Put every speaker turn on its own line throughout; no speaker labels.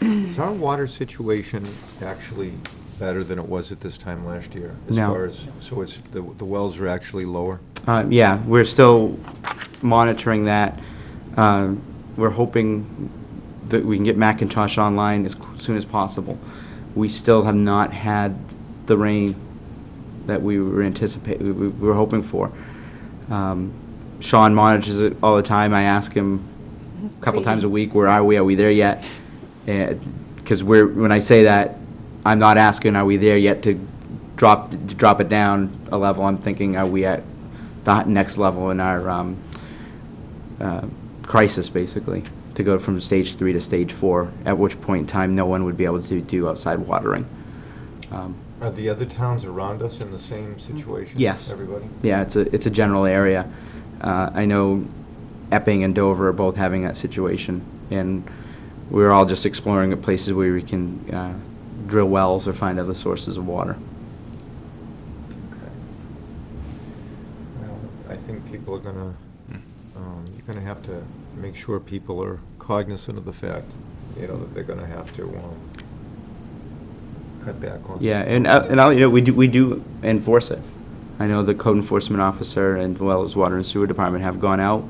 Is our water situation actually better than it was at this time last year? as
No.
far as So it's, the the wells are actually lower?
Uh, Yeah, we're still monitoring that. Um, We're hoping that we can get Macintosh online as c- soon as possible. We still have not had the rain that we were anticipating, we we were hoping for. Um, Sean monitors it all the time. I ask him a couple times a week, where are we? Are we there yet? Because we're, when I say that, I'm not asking, are we there yet to drop, to drop it down a level? I'm thinking, are we at the next level in our um, uh, crisis, basically? To go from stage three to stage four, at which point in time, no one would be able to do outside watering. Um,
Are the other towns around us in the same situation?
Yes.
Everybody?
Yeah, it's a, it's a general area. Uh, I know Epping and Dover are both having that situation, and we're all just exploring the places where we can uh, drill wells or find other sources of water.
Okay. Well, I think people are gonna,
Hmm.
um, you're gonna have to make sure people are cognizant of the fact, you know, that they're gonna have to um, cut back on.
Yeah, and, uh, and, I'll- you know, we do, we do enforce it. I know the code enforcement officer and as well as water and sewer department have gone out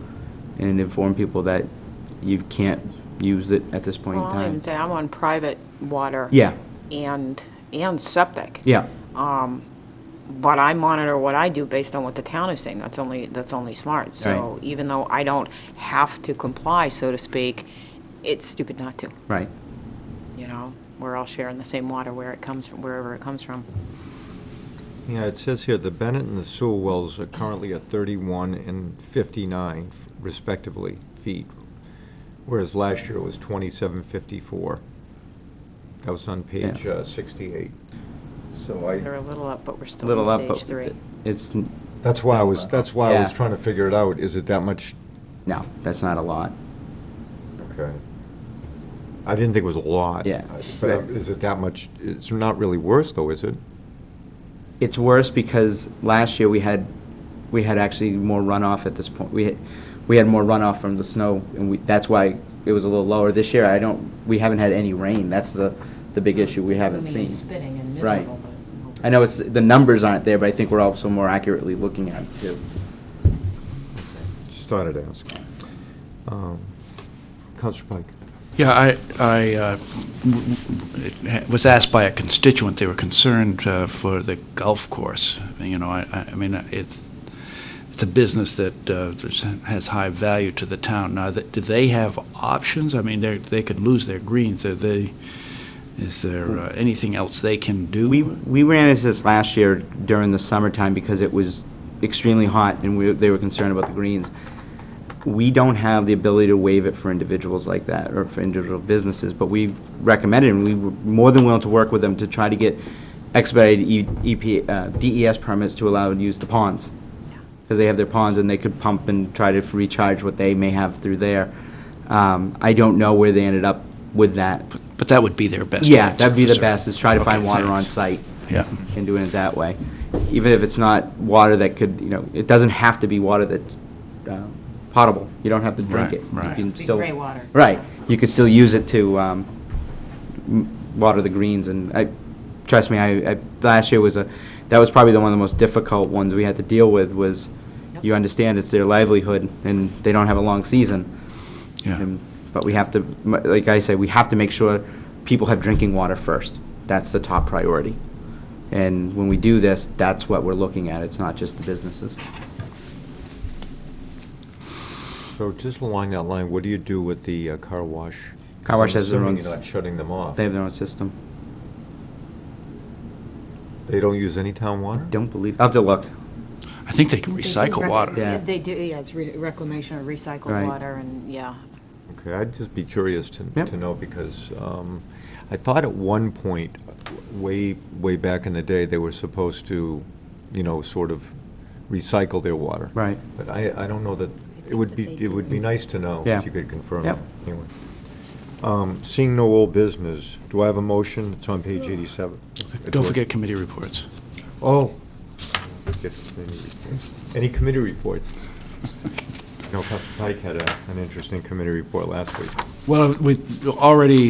and informed people that you can't use it at this point in
Well, I
time.
even say, I'm on private water.
Yeah.
And, and septic.
Yeah,
Um, But I monitor what I do based on what the town is saying. That's only, that's only smart. So
Right.
even though I don't have to comply, so to speak, it's stupid not to,
right.
you know? We're all sharing the same water where it comes, from, wherever it comes from.
Yeah, it says here, the Bennett and the Sewell wells are currently at 31 and 59 respectively feet, whereas last year it was 2754. That was on page
Yeah.
uh, 68. So I.
They're a little up, but we're still
Little up,
in
but
stage three.
it's,
That's why I was, that's why I was
Yeah.
trying to figure it out, is it that much?
no, that's not a lot.
Okay. I didn't think it was a lot.
Yeah.
But I- is it that much, it's not really worse though, is it?
It's worse because last year we had, we had actually more runoff at this point. We had, we had more runoff from the snow, and we, that's why it was a little lower. This year, I don't, we haven't had any rain. That's the, the big issue we haven't seen.
Spitting and
Right.
miserable, but.
I know it's, the numbers aren't there, but I think we're also more accurately looking at it too.
Just thought I'd ask. Um, Counselor Pike?
Yeah, I, I uh, was asked by a constituent, they were concerned uh, for the golf course. You know, I, I I mean, it's, it's a business that uh, that's- has high value to the town. Now, that- do they have options? I mean, they, they could lose their greens, are they, is there uh, anything else they can do?
Mm. We, we ran into this last year during the summertime because it was extremely hot and we, they were concerned about the greens. We don't have the ability to waive it for individuals like that or for individual businesses, but we recommended and we were more than willing to work with them to try to get expedited E- EP, uh, DES permits to allow and use the ponds. Because they have their ponds and they could pump and try to recharge what they may have through there. Um, I don't know where they ended up with that.
But that would be their best.
Yeah,
answer
that'd be
for
the
certain.
best, is try to find
Okay,
water on
thanks.
site
Yeah.
and doing it that way. Even if it's not water that could, you know, it doesn't have to be water that's uh, potable. You don't have to drink
Right,
it. You
right.
can
Be
still-
gray water.
Right. You could still use it to um, m- water the greens, and I, trust me, I, I- last year was a, that was probably the one of the most difficult ones we had to deal with, was
Yep.
you understand it's their livelihood, and they don't have a long season.
Yeah.
And- But we have to, m- like I say, we have to make sure people have drinking water first. That's the top priority. And when we do this, that's what we're looking at. It's not just the businesses.
So just along that line, what do you do with the uh, car wash? 'Cause
Car wash
I'm
has their
assuming
own
You're
s-
not shutting them off.
They have their own system.
They don't use any town water?
Don't believe, I'll have to look.
I think they can
They do
recycle
rec-
water.
Yeah.
They do, yeah, it's re- reclamation or recycled
Right.
water and, yeah.
Okay, I'd just be curious to,
Yep.
to know, because um, I thought at one point, way, way back in the day, they were supposed to, you know, sort of recycle their water.
Right.
But I, I don't know that, it
think
would
that
be,
they
it would be
do.
nice to know,
Yeah.
if you could confirm.
Yep.
that. Anyway. Um, Seeing no old business, do I have a motion? It's on page 87.
Don't forget committee reports.
Oh. Forget committee reports. Any committee reports? No, Council Pike had a- an interesting committee report last week.
Well, we already